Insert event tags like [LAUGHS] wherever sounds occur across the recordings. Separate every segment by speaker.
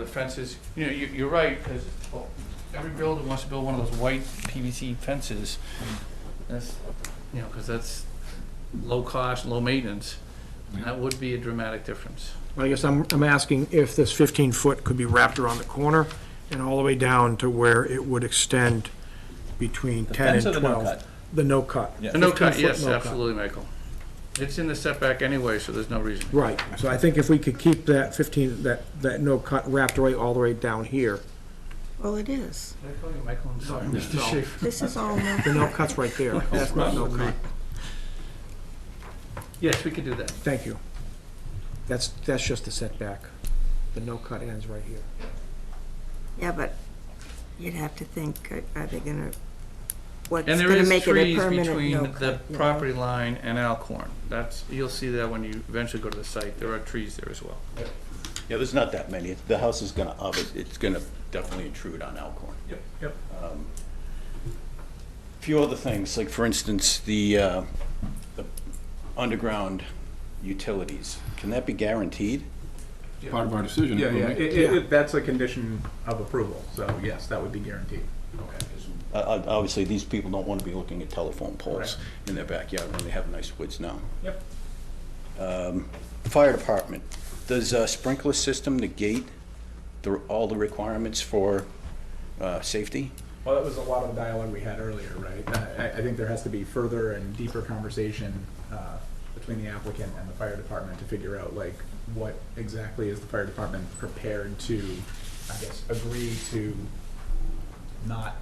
Speaker 1: The fences, you know, you, you're right, because every builder wants to build one of those white PVC fences. That's, you know, because that's low cost, low maintenance. And that would be a dramatic difference.
Speaker 2: I guess I'm, I'm asking if this 15-foot could be wrapped around the corner and all the way down to where it would extend between 10 and 12. The no cut.
Speaker 1: A no cut,
Speaker 2: 15-foot
Speaker 1: yes,
Speaker 2: no cut.
Speaker 1: absolutely, Michael. It's in the setback anyway, so there's no reason.
Speaker 2: Right, so I think if we could keep that 15, that, that no cut wrapped away all the way down here,
Speaker 3: Well, it is.
Speaker 1: Did I call you Michael? I'm sorry, Mr. Schaefer.
Speaker 3: This
Speaker 1: [LAUGHS]
Speaker 3: is all new.
Speaker 2: the no cut's right [LAUGHS] there, that's not no cut,
Speaker 1: Yes, we could do that.
Speaker 2: thank you. That's, that's just the setback, the no cut ends right here.
Speaker 3: Yeah, but you'd have to think, uh, are they gonna, what's
Speaker 1: And there
Speaker 3: gonna
Speaker 1: is
Speaker 3: make it a
Speaker 1: trees
Speaker 3: permanent
Speaker 1: between
Speaker 3: no
Speaker 1: the
Speaker 3: cut? you know?
Speaker 1: property line and Alcorn. That's, you'll see that when you eventually go to the site. There are trees there as well.
Speaker 4: Yeah, there's not that many. The house is gonna, ob- it's gonna definitely intrude on Alcorn.
Speaker 1: Yep, yep.
Speaker 4: Few other things, like for instance, the, uh, the underground utilities, can that be guaranteed?
Speaker 5: part of our decision.
Speaker 6: Yeah, yeah,
Speaker 5: We'll make-
Speaker 6: it, it, it- that's a condition of approval, so yes, that would be guaranteed.
Speaker 4: Uh, uh, obviously, these people don't wanna be looking at telephone poles in their backyard when they have nice woods now.
Speaker 6: Yep.
Speaker 4: Fire department, does a sprinkler system negate the, all the requirements for, uh, safety?
Speaker 6: Well, that was a lot of the dialogue we had earlier, right? I, I- I think there has to be further and deeper conversation, uh, between the applicant and the fire department to figure out, like, what exactly is the fire department prepared to, I guess, agree to not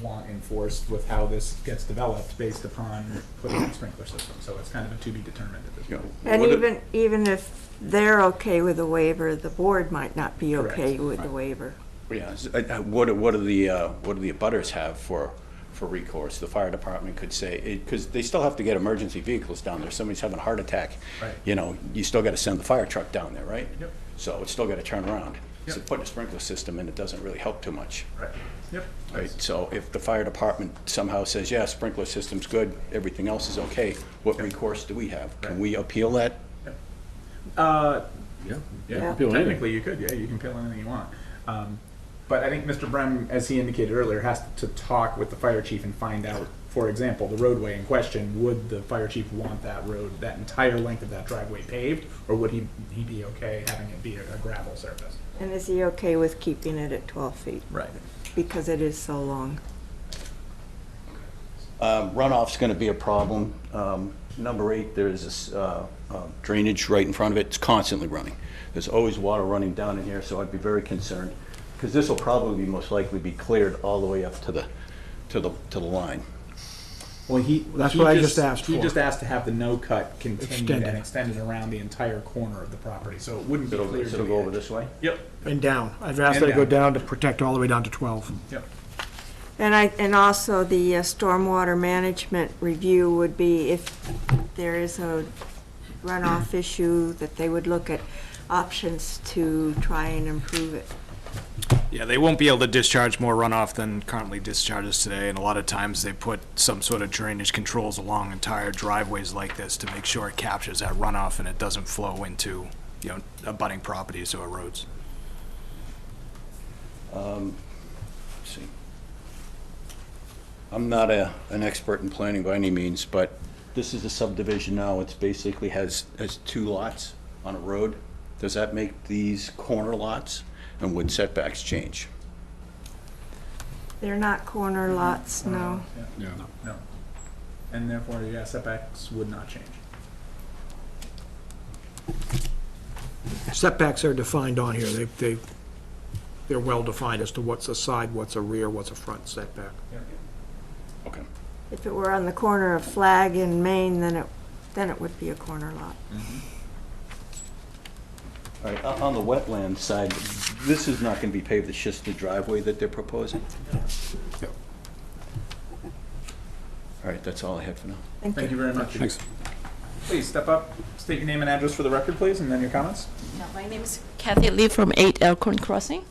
Speaker 6: want enforced with how this gets developed based upon putting in a sprinkler system, so it's kind of a to be determined at this
Speaker 4: You know,
Speaker 6: point.
Speaker 3: And
Speaker 4: what if-
Speaker 3: even, even if they're okay with the waiver, the board might not be
Speaker 6: Correct.
Speaker 3: okay with the waiver.
Speaker 4: Yeah, s- uh, uh, what, do- what do the, uh, what do the abutters have for, for recourse? The fire department could say, because they still have to get emergency vehicles down there, somebody's having a heart attack.
Speaker 6: Right.
Speaker 4: You know, you still gotta send the fire truck down there, right?
Speaker 6: Yep.
Speaker 4: So it's still gotta turn around. So
Speaker 6: Yep.
Speaker 4: putting a sprinkler system in, it doesn't really help too much.
Speaker 6: Right, yep.
Speaker 4: Right, so if the fire department somehow says, yeah, sprinkler system's good, everything else is okay, what recourse do we have? Can
Speaker 6: Right.
Speaker 4: we appeal that?
Speaker 6: Uh,
Speaker 3: Yeah.
Speaker 5: Yeah, appeal anything.
Speaker 6: Technically, you could, yeah, you can peel anything you want. Um, but I think Mr. Brem, as he indicated earlier, has to talk with the fire chief and find out, for example, the roadway in question, would the fire chief want that road, that entire length of that driveway paved? Or would he, he be okay having it be a a gravel surface?
Speaker 3: And is he okay with keeping it at twelve feet?
Speaker 6: Right.
Speaker 3: Because it is so long.
Speaker 4: Um, Runoff's going to be a problem. Um, Number eight, there is this uh, uh, drainage right in front of it, it's constantly running. There's always water running down in here, so I'd be very concerned, because this will probably be most likely be cleared all the way up to the, to the, to the line.
Speaker 6: Well, he.
Speaker 2: That's
Speaker 6: he
Speaker 2: what I just asked
Speaker 6: He
Speaker 2: for.
Speaker 6: just asked to have the no cut continued
Speaker 2: Extended.
Speaker 6: and extended around the entire corner of the property, so it wouldn't be
Speaker 4: It'll,
Speaker 6: clear to
Speaker 4: it'll
Speaker 6: the
Speaker 4: go over
Speaker 6: edge.
Speaker 4: this way?
Speaker 6: Yep,
Speaker 2: And down, I've asked
Speaker 6: And
Speaker 2: that to go
Speaker 6: down.
Speaker 2: down to protect all the way down to 12.
Speaker 6: yep.
Speaker 3: And I, and also the uh, stormwater management review would be if there is a runoff issue, that they would look at options to try and improve it.
Speaker 7: Yeah, they won't be able to discharge more runoff than currently discharges today, and a lot of times they put some sort of drainage controls along entire driveways like this to make sure it captures that runoff and it doesn't flow into, you know, abutting properties or roads.
Speaker 4: See. I'm not a, an expert in planning by any means, but this is a subdivision now, it's basically has, has two lots on a road. Does that make these corner lots, and would setbacks change?
Speaker 3: They're not corner lots, no.
Speaker 5: Yeah.
Speaker 6: No. And therefore, yeah, setbacks would not change.
Speaker 2: Setbacks are defined on here, they, they, they're well-defined as to what's a side, what's a rear, what's a front setback.
Speaker 4: Okay.
Speaker 3: If it were on the corner of Flag and Maine, then it, then it would be a corner lot.
Speaker 4: All right, on on the wetland side, this is not going to be paved, it's just the driveway that they're proposing? All right, that's all I had for now.
Speaker 6: Thank you very much.
Speaker 5: Thanks.
Speaker 6: Please step up, state your name and address for the record, please, and then your comments.
Speaker 8: Now, My name is Kathy Lee from 8 Elkhorn Crossing.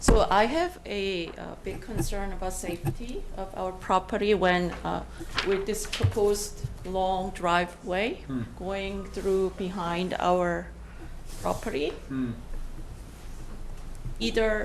Speaker 8: So I have a uh, big concern about safety of our property when uh, with this proposed long driveway
Speaker 2: Hmm. Hmm.
Speaker 8: going through behind our property. either